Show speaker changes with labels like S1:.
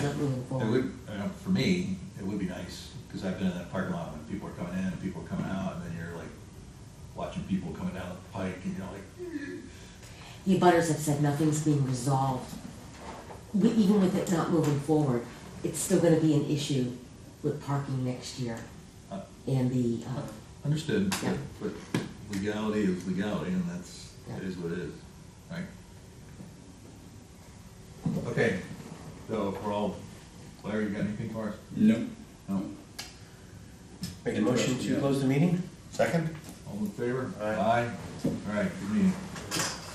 S1: would, you know, for me, it would be nice, because I've been in that parking lot when people are coming in and people are coming out, and then you're like watching people coming down the pike, and you're like,
S2: The abutters have said nothing's being resolved. We, even with it not moving forward, it's still gonna be an issue with parking next year
S1: uh,
S2: and the, uh,
S1: understood,
S2: Yeah.
S1: but but legality is legality, and that's, it
S2: Yeah.
S1: is what it is, right? Okay, so we're all, Larry, you got anything for us?
S3: No.
S1: No.
S4: Make a motion to close the meeting? Second?
S1: All in favor?
S4: Aye.
S1: All right, good meeting.